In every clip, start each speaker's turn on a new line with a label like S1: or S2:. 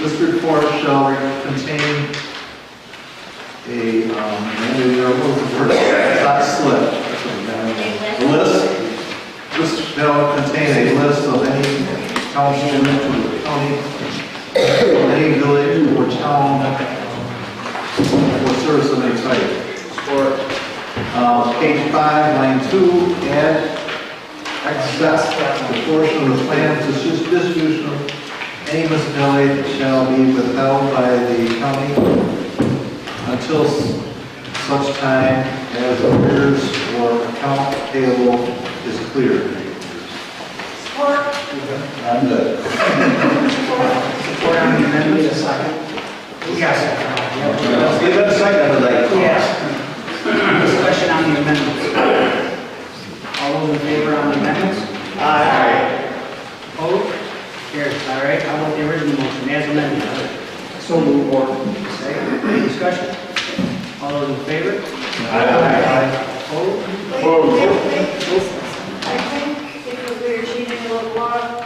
S1: This report shall contain a, um, and there was a word, not slip. A List, this shall contain a list of any council to the county, any village or town for service of any type. Support. Uh, page five, line two, add excess proportion of the plan to dis- distribution of any municipality shall be withheld by the county until s- such time as arrears or account payable is cleared. I'm good.
S2: Support on the amendment, a second. Yes.
S1: Let's give it a second, I'd like.
S2: Yes. Discussion on the amendments. All those in favor on the amendments? Aye. Vote? Carries, all right, how about the original motion as amended? So move on. Second, any discussion? All those in favor? Aye. Vote?
S3: Wait, wait, wait. I think because we are changing a little law,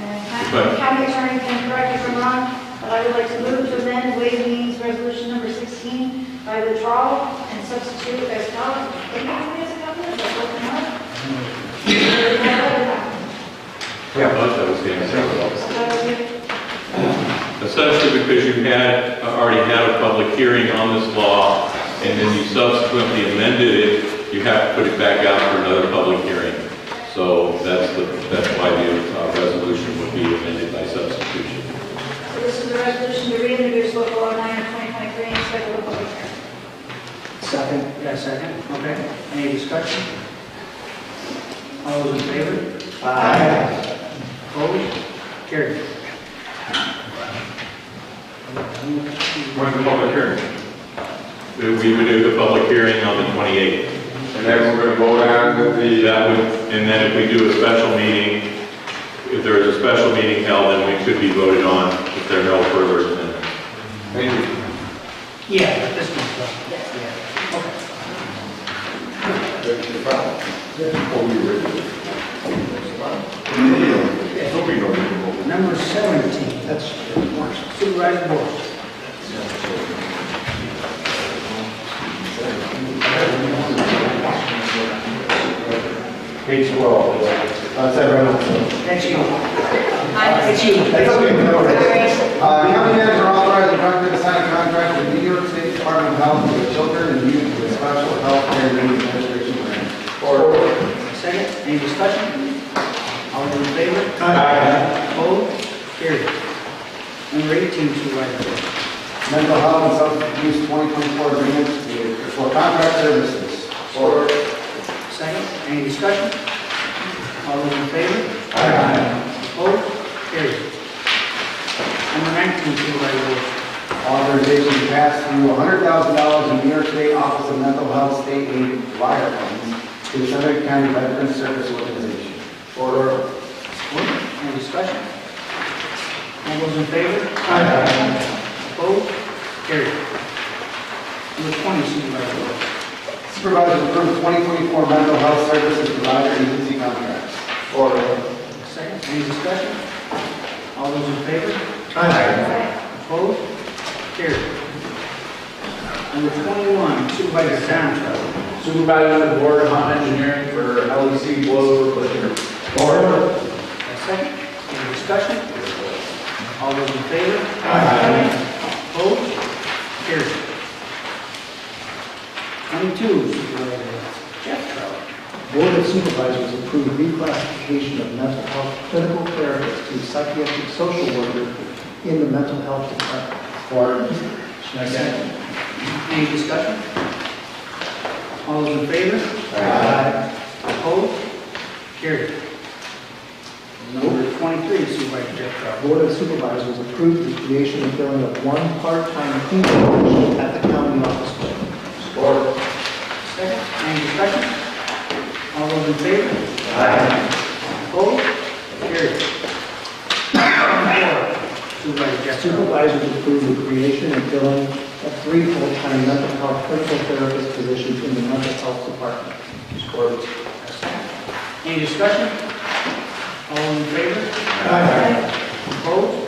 S3: and county- county attorney can correct me if I'm wrong, but I would like to move to amend waive the means resolution number 16 by withdrawal and substitute as follows. Can you read it out loud? That's open up.
S4: Yeah, that's what I was getting at. Essentially because you had, already had a public hearing on this law, and then you subsequently amended it, you have to put it back out for another public hearing. So that's the, that's why the uh, resolution would be amended by substitution.
S3: So this is a resolution to reintroduce local law 9 of 2023 and set a local hearing.
S2: Second. Yeah, second, okay. Any discussion? All those in favor? Aye. Opposed? Carried.
S4: When's the public hearing? We would do the public hearing on the 28th.
S5: And then we're gonna vote on the,
S4: That would, and then if we do a special meeting, if there is a special meeting held, then we could be voted on if there are no further amendments.
S5: maybe,
S2: Yeah, but this one's done. Yeah. Okay.
S5: that's the problem. Before we read it. There'll be no reading.
S2: Number 17, that's Supervisor Board.
S6: Page 12. That's everyone.
S2: That's you.
S3: Aye.
S6: That's okay, no worries.
S7: Uh, the county manager authorized the director to sign a contract with New York State Department of Health for children and youth with special health care and administration grant.
S2: Second, any discussion? All those in favor? Opposed? Carried. Number 18, Supervisor Board.
S7: Mental health and substance use 2024 agreement with- for contract services. Order.
S2: Second, any discussion? All those in favor? Aye. Opposed? Carried. Number 19, Supervisor Wilt.
S7: Authorization to pass through $100,000 in New York State Office of Mental Health State Aid wire funds to the Southern County Veterans Service Organization. Order.
S2: Any discussion? All those in favor? Aye. Opposed? Carried. Number 20, Supervisor Wilt.
S7: Supervisors approve 2024 mental health services provider agency contracts. Order.
S2: Second, any discussion? All those in favor?
S3: Aye.
S2: Opposed? Carried. Number 21, Supervisor Dontrell.
S6: Supervisor of the Board of Home Engineering for LEC Blow Over Blizzard. Order.
S2: A second, any discussion? All those in favor? Aye. Opposed? Carried. Twenty-two, Supervisor Jeff Trout.
S8: Board of Supervisors approved reclassification of mental health clinical therapist to psychiatric social worker in the mental health department.
S2: Any discussion? All those in favor? Aye. Opposed? Carried. Number twenty-three, Supervisor Jeff Trout.
S8: Board of Supervisors approved the creation and filling of one part-time cleaning position at the county office building.
S2: Second, any discussion? All those in favor? Aye. Opposed? Carried. Number four, Supervisor Jeff Trout.
S8: Supervisors approved the creation and filling of three full-time mental health clinical therapist positions in the mental health department.
S2: Any discussion? All in favor?
S3: Aye.
S2: Opposed?